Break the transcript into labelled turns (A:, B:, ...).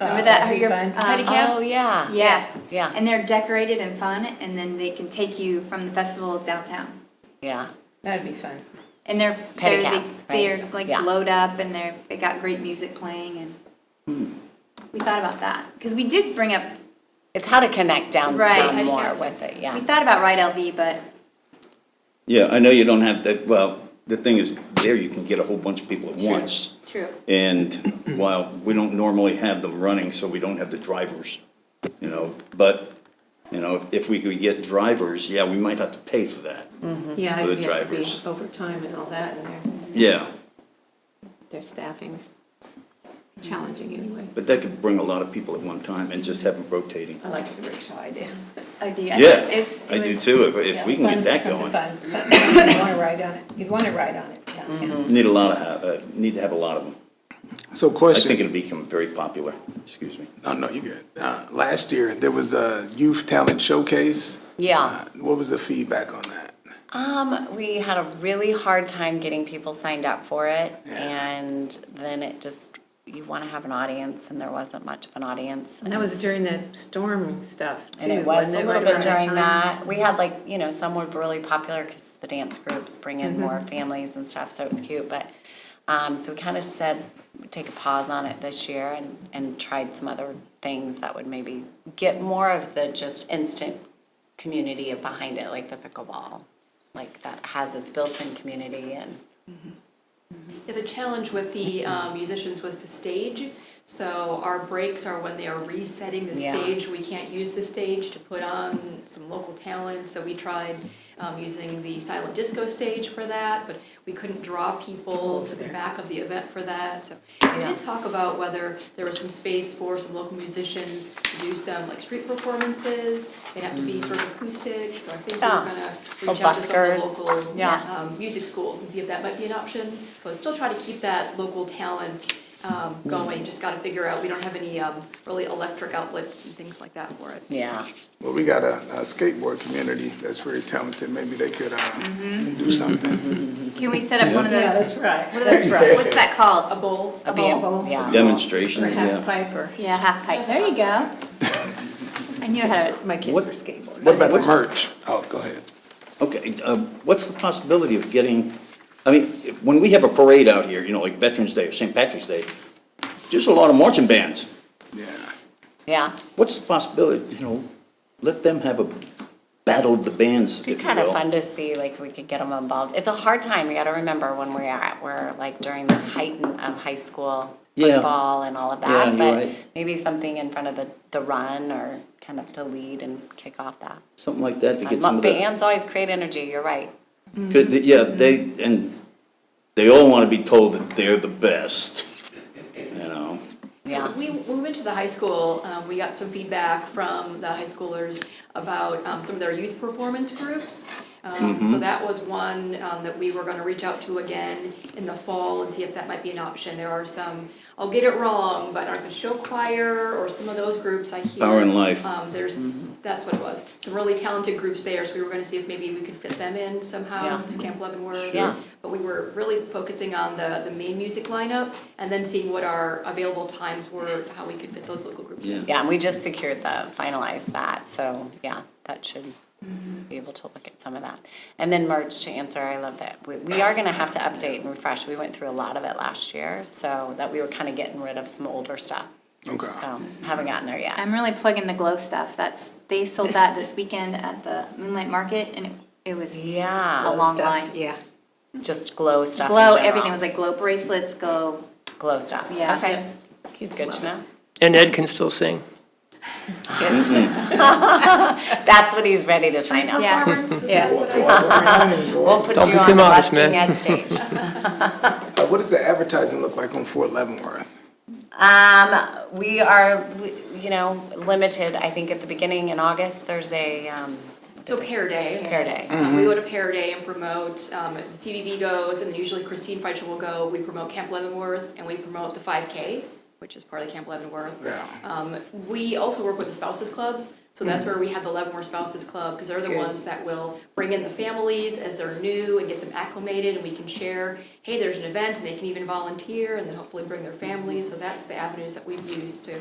A: Remember that, how
B: that'd be
A: you're,
C: um,
B: fun.
A: uh,
D: Pedicab?
E: Oh, yeah.
A: Yeah.
E: Yeah.
A: And they're decorated and fun, and then they can take you from the festival downtown.
E: Yeah.
B: That'd be fun.
A: And they're, they're, they-
E: Pedicabs, right,
A: they're like
E: yeah.
A: glowed up and they're, they got great music playing and we thought about that. Cause we did bring up,
E: It's how to connect
A: right.
E: downtown more
A: pedicabs.
E: with it, yeah.
A: We thought about Ride LV, but
F: Yeah, I know you don't have that, well, the thing is, there you can get a whole bunch of people at once.
A: true.
F: And while we don't normally have them running, so we don't have the drivers, you know, but, you know, if- if we could get drivers, yeah, we might have to pay for that.
C: Yeah,
F: For the
C: it'd have to be
F: drivers.
C: overtime and all that, and their,
F: Yeah,
C: their staffing's challenging anyway.
F: but that could bring a lot of people at one time and just have them rotating.
C: I like the rickshaw idea.
A: I do, I,
F: Yeah,
A: it's,
F: I
A: it
F: do
A: was.
F: too, if, if
A: yeah.
F: we can
B: Fun,
F: get that
B: something
F: going.
B: fun, something you'd wanna ride on it, you'd wanna ride on it downtown.
F: Need a lot of, ha- uh, need to have a lot of them.
G: So
F: I think
G: question,
F: it'll become very popular, excuse me.
G: no, no, you good. Uh, last year, there was a youth talent showcase.
E: Yeah.
G: Uh, What was the feedback on that?
E: Um, we had a really hard time getting people signed up for it, and then it just, you wanna have an audience, and there wasn't much of an audience.
C: And that was during that storm stuff too.
E: And it was a
C: wasn't it,
E: little
C: right around
E: bit
C: that
E: during
C: time?
E: that, we had like, you know, some were really popular, cause the dance groups bring in more families and stuff, so it was cute, but, um, so we kinda said, take a pause on it this year and, and tried some other things that would maybe get more of the just instant community behind it, like the pickleball, like that has its built-in community and.
H: Yeah, the challenge with the um, musicians was the stage. So our breaks are when they are resetting the
E: Yeah.
H: stage. We can't use the stage to put on some local talent. So we tried um, using the silent disco stage for that, but we couldn't draw people to the back of the event for that. So we did talk about whether there was some space for some local musicians to do some like street performances. They have to be sort of acoustic. So I think we we're
E: Mm. Yeah. Or
H: gonna reach out to some of
E: buskers.
H: the local
E: Yeah.
H: um, music schools and see if that might be an option. So I still try to keep that local talent um, going, just gotta figure out, we don't have any um, really electric outlets and things like that for it.
E: Yeah.
G: Well, we got a, a skateboard community that's very talented. Maybe they could, uh, do something.
A: Can we set up one of
C: Yeah,
A: those,
C: that's right.
A: what are those, what's that
H: A
A: called?
H: bowl,
A: A
E: Yeah,
A: bowl?
E: Yeah.
F: Demonstration,
C: Or half
F: yeah.
C: pipe or,
A: Yeah, half pipe, there you go. I knew I had
C: Oh, my kids were skateboarding.
G: What about the merch? Oh, go ahead.
F: Okay, uh, what's the possibility of getting, I mean, if- when we have a parade out here, you know, like Veterans Day or St. Patrick's Day, just a lot of marching bands.
G: Yeah.
E: Yeah.
F: What's the possibility, you know, let them have a battle of the bands, if you
E: It'd
F: will.
E: be kind of fun to see, like, we could get them involved. It's a hard time, you gotta remember when we're at, we're like during the heighten of high school
F: Yeah.
E: football and all of
F: Yeah,
E: that.
F: you're
E: But
F: right.
E: maybe something in front of the, the run or kind of to lead and kick off that.
F: Something like that to get some
E: Um,
F: of the,
E: Bands always create energy, you're right.
F: could, yeah, they, and they all want to be told that they're the best, you know?
E: Yeah.
H: We, when we went to the high school, um, we got some feedback from the high schoolers about, um, some of their youth performance groups. Um,
F: Mm-hmm.
H: so that was one, um, that we were gonna reach out to again in the fall and see if that might be an option. There are some, I'll get it wrong, but I don't know if it's show choir or some of those groups I hear.
F: Power and Life.
H: Um, there's,
E: Mm-hmm.
H: that's what it was, some really talented groups there, so we were gonna see if maybe we could fit them in somehow
E: Yeah.
H: to Camp Leavenworth.
E: Sure.
H: But we were really focusing on the, the main music lineup and then seeing what our available times were, how we could fit those local groups in.
E: Yeah, and we just secured the, finalized that, so, yeah, that should be able to look at some of that. And then merch, to answer, I love that. We, we are gonna have to update and refresh, we went through a lot of it last year, so that we were kinda getting rid of some older stuff.
G: Okay.
E: So, haven't gotten there yet.
A: I'm really plugging the glow stuff. That's they sold that this weekend at the Moonlight Market, and it, it was
E: Yeah.
A: a long
C: Stuff,
A: line.
C: Yeah.
E: Just glow stuff in
A: Glow,
E: general.
A: everything was like glow bracelets, glow.
E: Glow stuff,
A: Yeah.
E: okay,
C: Kids
E: good
C: love
E: to
C: it.
E: know.
I: And Ed can still sing.
E: That's what he's ready to sign up.
A: Yeah.
H: Performance, is
C: Yeah.
H: that what I-
E: We'll put you
I: Don't be
E: on the
I: too modest,
E: busking
I: man.
E: Ed stage.
G: Uh, what does the advertising look like on Fort Leavenworth?
E: Um, we are, we- you know, limited, I think at the beginning in August, there's a, um,
H: So Pear Day.
E: Pear Day.
H: Um, We go to Pear Day and promote, um, the CVV goes, and then usually Christine Feichel will go, we promote Camp Leavenworth, and we promote the five K, which is part of Camp Leavenworth.
G: Yeah.
H: Um, we also work with the spouses club, so that's where we have the Leavenworth Spouses Club, because they're the ones that will bring in the families as they're new and get them acclimated, and we can share, hey, there's an event, and they can even volunteer, and then hopefully bring their families, so that's the avenues that we've used to